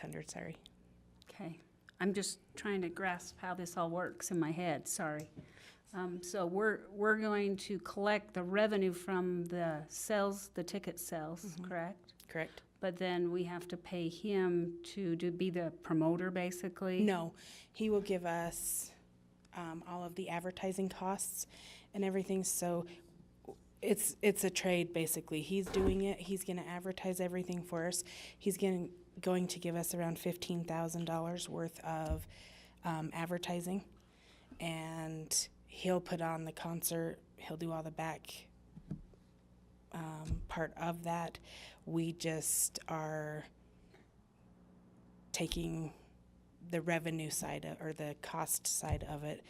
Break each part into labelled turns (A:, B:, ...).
A: standards, sorry.
B: Okay, I'm just trying to grasp how this all works in my head, sorry. Um, so we're, we're going to collect the revenue from the sales, the ticket sales,
A: Mm-hmm.
B: correct?
A: Correct?
B: But then we have to pay him to, to be the promoter, basically?
A: No, he will give us um, all of the advertising costs and everything. So it's it's a trade basically. He's doing it. He's going to advertise everything for us. He's going going to give us around fifteen thousand dollars worth of um, advertising, and he'll put on the concert. He'll do all the back um, part of that. We just are taking the revenue side of, or the cost side of it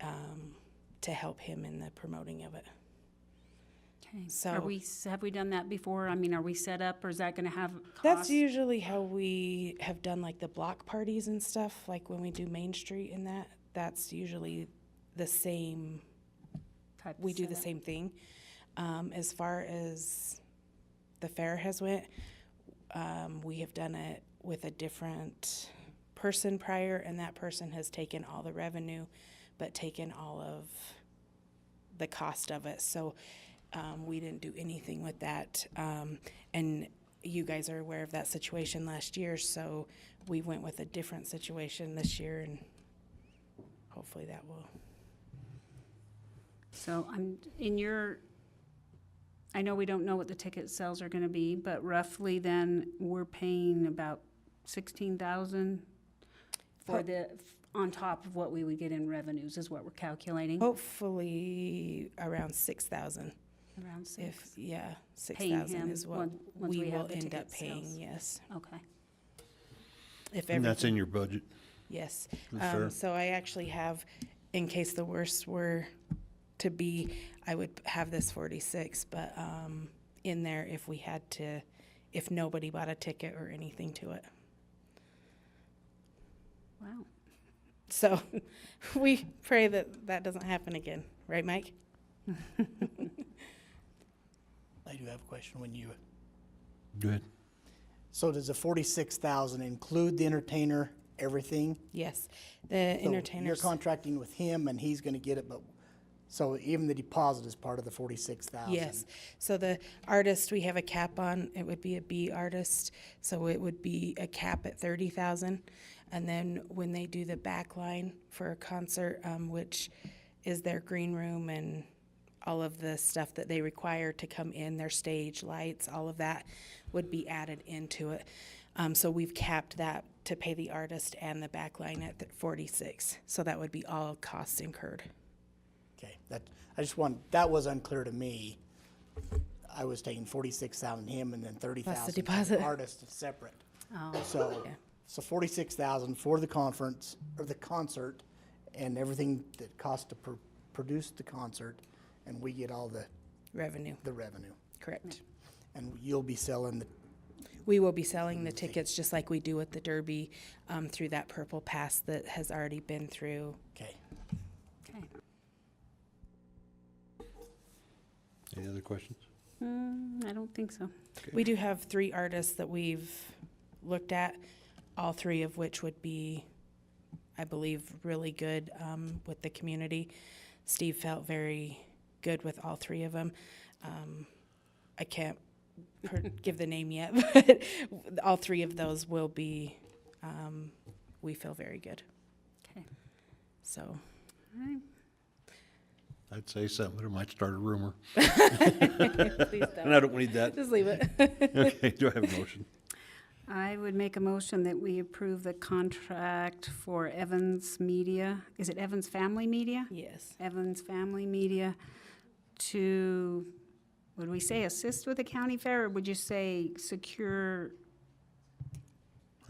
A: um, to help him in the promoting of it.
B: Okay.
A: So-
B: Are we, s- have we done that before? I mean, are we set up, or is that gonna have
A: That's
B: costs?
A: usually how we have done like the block parties and stuff, like when we do Main Street and that. That's usually the same.
B: type of
A: We do the
B: setup?
A: same thing. Um, as far as the fair has went, um, we have done it with a different person prior, and that person has taken all the revenue, but taken all of the cost of it. So um, we didn't do anything with that. Um, and you guys are aware of that situation last year, so we went with a different situation this year, and hopefully that will.
B: So I'm, in your, I know we don't know what the ticket sales are gonna be, but roughly then, we're paying about sixteen thousand for
A: Ho-
B: the, on top of what we would get in revenues is what we're calculating,
A: Oh, Hopefully around six thousand.
B: around
A: If,
B: six.
A: yeah, six
B: Paying him
A: thousand is what
B: on- once
A: we
B: we have
A: will
B: the
A: end up
B: ticket
A: paying,
B: sales.
A: yes.
B: Okay,
A: If
C: And
A: every,
C: that's in your budget?
A: yes.
C: The
A: Um,
C: fair?
A: So I actually have, in case the worst were to be, I would have this forty-six, but, um, in there if we had to, if nobody bought a ticket or anything to it.
B: wow.
A: So we pray that that doesn't happen again, right, Mike?
D: I do have a question when you,
C: Go ahead.
D: so does the forty-six thousand include the entertainer, everything?
A: Yes, the
D: So You're
A: entertainers,
D: contracting with him and he's gonna get it, but, so even the deposit is part of the forty-six thousand?
A: yes. So the artist, we have a cap on, it would be a B artist, so it would be a cap at thirty thousand. And then when they do the back line for a concert, um, which is their green room and all of the stuff that they require to come in, their stage lights, all of that would be added into it. Um, so we've capped that to pay the artist and the back line at th- forty-six, so that would be all costs incurred.
D: Okay, that, I just want, that was unclear to me. I was taking forty-six thousand him and then thirty thousand
A: deposit. Oh,
D: artist is separate. So, so forty-six thousand for the conference, or the concert, and everything that costs to pr- produce the concert, and we get all the,
A: Revenue,
D: the revenue.
A: correct.
D: And you'll be selling the,
A: We will be selling the tickets just like we do with the Derby um, through that Purple Pass that has already been through.
D: okay.
B: Okay.
C: Any other questions?
B: Hmm, I don't think so.
A: We do have three artists that we've looked at, all three of which would be, I believe, really good um, with the community. Steve felt very good with all three of them. Um, I can't per- give the name yet, but all three of those will be, um, we feel very good.
B: Okay,
A: So.
B: all right.
C: I'd say something, but it might start a rumor.
A: Please
C: And I don't need that.
A: Just leave it.
C: Okay, do I have a motion?
B: I would make a motion that we approve the contract for Evans Media. Is it Evans Family Media?
A: Yes.
B: Evans Family Media to, would we say assist with the county fair, or would you say secure?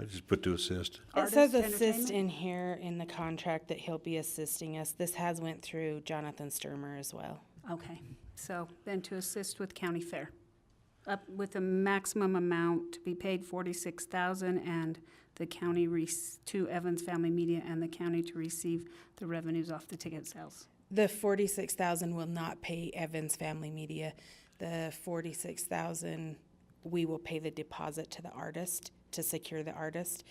C: I just put to assist.
A: It
B: Artist
A: says assist
B: entertainment?
A: in here in the contract that he'll be assisting us. This has went through Jonathan Sturmer as well.
B: Okay, so then to assist with county fair, up with a maximum amount to be paid forty-six thousand, and the county rec, to Evans Family Media and the county to receive the revenues off the ticket sales.
A: The forty-six thousand will not pay Evans Family Media. The forty-six thousand, we will pay the deposit to the artist to secure the artist.